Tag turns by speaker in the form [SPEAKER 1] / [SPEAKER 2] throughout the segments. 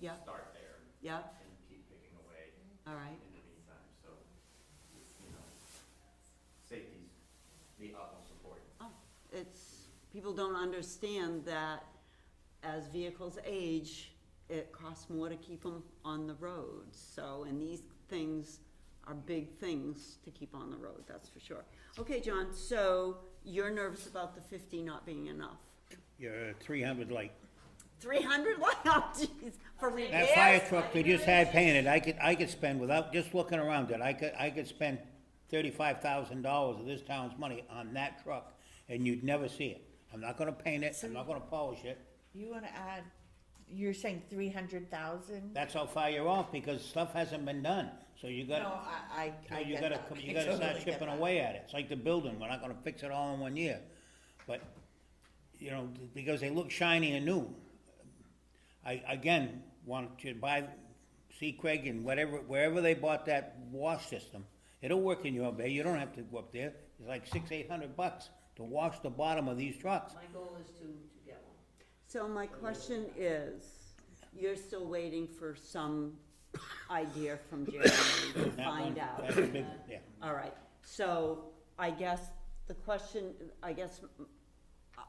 [SPEAKER 1] Yeah.
[SPEAKER 2] Start there
[SPEAKER 1] yeah,
[SPEAKER 2] and keep picking away
[SPEAKER 1] all right,
[SPEAKER 2] in the meantime, so, you know, safety's the utmost important.
[SPEAKER 1] it's, people don't understand that as vehicles age, it costs more to keep them on the road, so, and these things are big things to keep on the road, that's for sure. Okay, John, so you're nervous about the fifty not being enough?
[SPEAKER 3] You're three hundred light.
[SPEAKER 1] Three hundred, wow, jeez, for
[SPEAKER 3] That fire
[SPEAKER 1] repairs?
[SPEAKER 3] truck they just had painted, I could, I could spend without just looking around it, I could, I could spend thirty-five thousand dollars of this town's money on that truck and you'd never see it. I'm not gonna paint it, I'm not gonna polish it.
[SPEAKER 4] You wanna add, you're saying three hundred thousand?
[SPEAKER 3] That's how far you're off because stuff hasn't been done, so you
[SPEAKER 4] No,
[SPEAKER 3] gotta,
[SPEAKER 4] I, I,
[SPEAKER 3] so
[SPEAKER 4] I
[SPEAKER 3] you
[SPEAKER 4] get
[SPEAKER 3] gotta,
[SPEAKER 4] that.
[SPEAKER 3] come-
[SPEAKER 4] I
[SPEAKER 3] you gotta start
[SPEAKER 4] totally get
[SPEAKER 3] chipping
[SPEAKER 4] that.
[SPEAKER 3] away at it. It's like the building, we're not gonna fix it all in one year. But, you know, because they look shiny and new. I, again, want to buy, see Craig and whatever, wherever they bought that wash system, it'll work in your bay, you don't have to go up there. It's like six, eight hundred bucks to wash the bottom of these trucks.
[SPEAKER 5] My goal is to, to get one.
[SPEAKER 1] So my question is, you're still waiting for some idea from Jeremy to
[SPEAKER 3] That one-
[SPEAKER 1] find out?
[SPEAKER 3] That's a big, yeah.
[SPEAKER 1] All right, so I guess the question, I guess, uh,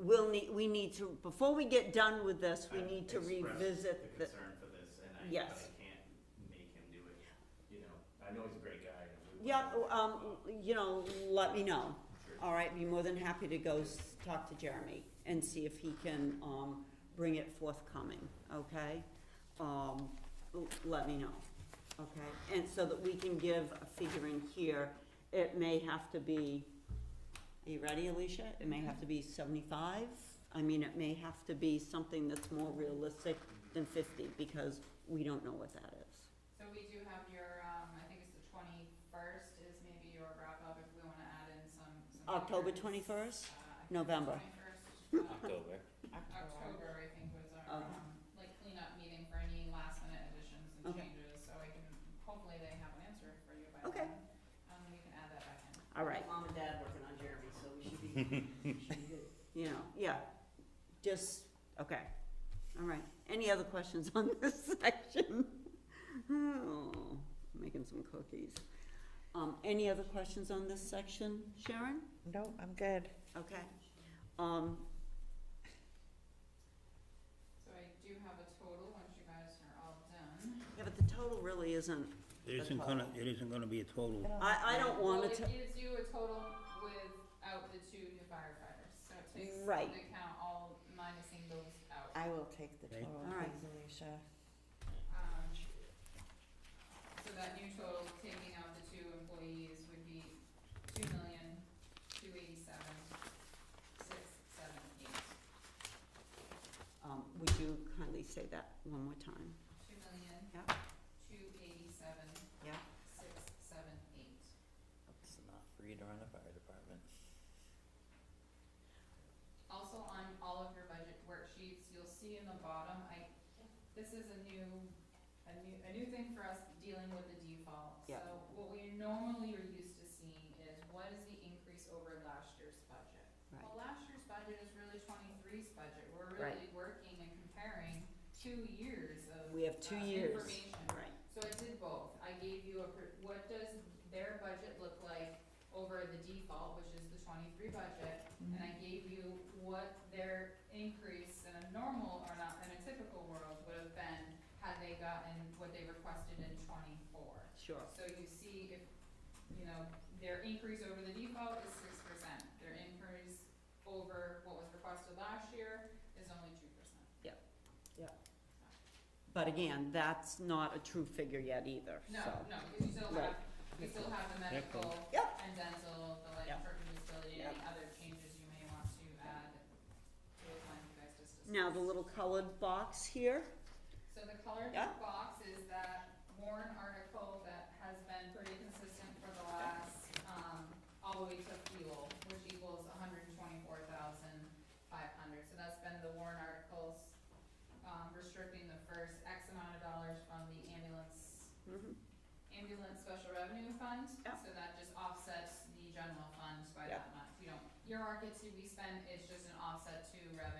[SPEAKER 1] we'll need, we need to, before we get done with this, we
[SPEAKER 2] I've
[SPEAKER 1] need to
[SPEAKER 2] expressed
[SPEAKER 1] revisit
[SPEAKER 2] The
[SPEAKER 1] the,
[SPEAKER 2] concern for this, and I, but
[SPEAKER 1] Yes.
[SPEAKER 2] I can't make him do it, you know, I know he's a great guy. and we
[SPEAKER 1] yeah,
[SPEAKER 2] want him to
[SPEAKER 1] um,
[SPEAKER 2] do
[SPEAKER 1] you know, let me know.
[SPEAKER 2] Sure.
[SPEAKER 1] All right, be more than happy to go s- talk to Jeremy and see if he can, um, bring it forthcoming, okay? Um, l- let me know, okay? And so that we can give a figuring here, it may have to be, are you ready, Alicia? It may have to be seventy-five. I mean, it may have to be something that's more realistic than fifty, because we don't know what that is.
[SPEAKER 6] So we do have your, um, I think it's the twenty-first is maybe your wrap up if we wanna add in some. some
[SPEAKER 1] October
[SPEAKER 6] figures.
[SPEAKER 1] 21st?
[SPEAKER 6] Uh, I think
[SPEAKER 1] November.
[SPEAKER 6] it's 21st, uh,
[SPEAKER 7] October.
[SPEAKER 6] October, I think was
[SPEAKER 1] Oh.
[SPEAKER 6] our, um, like cleanup meeting for any last minute additions and
[SPEAKER 1] Okay.
[SPEAKER 6] changes, so I can, hopefully they have an answer for you by
[SPEAKER 1] Okay.
[SPEAKER 6] then. Um, we can add that back in.
[SPEAKER 1] All right.
[SPEAKER 5] Mom and dad working on Jeremy, so we should be, we should be good.
[SPEAKER 1] you know, yeah, just, okay, all right. Any other questions on this section? Oh, making some cookies. Um, any other questions on this section, Sharon?
[SPEAKER 4] No, I'm good.
[SPEAKER 1] Okay, um,
[SPEAKER 6] So I do have a total once you guys are all done.
[SPEAKER 1] yeah, but the total really isn't,
[SPEAKER 3] It isn't gonna, it isn't gonna be a total.
[SPEAKER 1] I, I don't wanna,
[SPEAKER 6] Well, it
[SPEAKER 1] to-
[SPEAKER 6] gives you a total without the two new firefighters, so it takes
[SPEAKER 1] Right.
[SPEAKER 6] into account all minusing those out.
[SPEAKER 4] I will take the
[SPEAKER 3] Okay.
[SPEAKER 4] total,
[SPEAKER 1] All right.
[SPEAKER 4] please, Alicia.
[SPEAKER 6] Um, so that new total, taking out the two employees would be two million, two eighty-seven, six, seven, eight.
[SPEAKER 1] um, would you kindly say that one more time?
[SPEAKER 6] Two million,
[SPEAKER 1] Yeah.
[SPEAKER 6] two eighty-seven,
[SPEAKER 1] Yeah.
[SPEAKER 6] six, seven, eight.
[SPEAKER 7] It's not free to run a fire department.
[SPEAKER 6] Also on all of your budget worksheets, you'll see in the bottom, I, this is a new, a new, a new thing for us dealing with the default.
[SPEAKER 1] Yeah.
[SPEAKER 6] So what we normally are used to seeing is what is the increase over last year's budget?
[SPEAKER 1] Right.
[SPEAKER 6] Well, last year's budget is really 23's budget, we're
[SPEAKER 1] Right.
[SPEAKER 6] really working and comparing two years of
[SPEAKER 1] We have two
[SPEAKER 6] uh,
[SPEAKER 1] years.
[SPEAKER 6] information.
[SPEAKER 1] Right.
[SPEAKER 6] So I did both, I gave you a, per- what does their budget look like over the default, which is the twenty-three budget? And I gave you what their increase in a normal or not, in a typical world would have been had they gotten what they requested in twenty-four.
[SPEAKER 1] Sure.
[SPEAKER 6] So you see if, you know, their increase over the default is six percent, their increase over what was requested last year is only two percent.
[SPEAKER 1] But again, that's not a true figure yet either, so.
[SPEAKER 6] No, no, because you still
[SPEAKER 1] Right.
[SPEAKER 6] have, you still have the medical
[SPEAKER 1] Yep.
[SPEAKER 6] and dental, the life
[SPEAKER 1] Yep.
[SPEAKER 6] insurance disability, any
[SPEAKER 1] Yep.
[SPEAKER 6] other changes you may want to add to the plan you guys just discussed.
[SPEAKER 1] Now, the little colored box here,
[SPEAKER 6] So the colored
[SPEAKER 1] Yeah.
[SPEAKER 6] box is that Warren article that has been pretty consistent for the last, um, all the way to fuel, which equals hundred and twenty-four thousand five hundred. So that's been the Warren articles, um, restricting the first X amount of dollars from the ambulance
[SPEAKER 1] Mhm.
[SPEAKER 6] ambulance special revenue fund.
[SPEAKER 1] Yeah.
[SPEAKER 6] So that just offsets the general fund by
[SPEAKER 1] Yeah.
[SPEAKER 6] that much, you don't, your market to be spent is just an offset to revenue.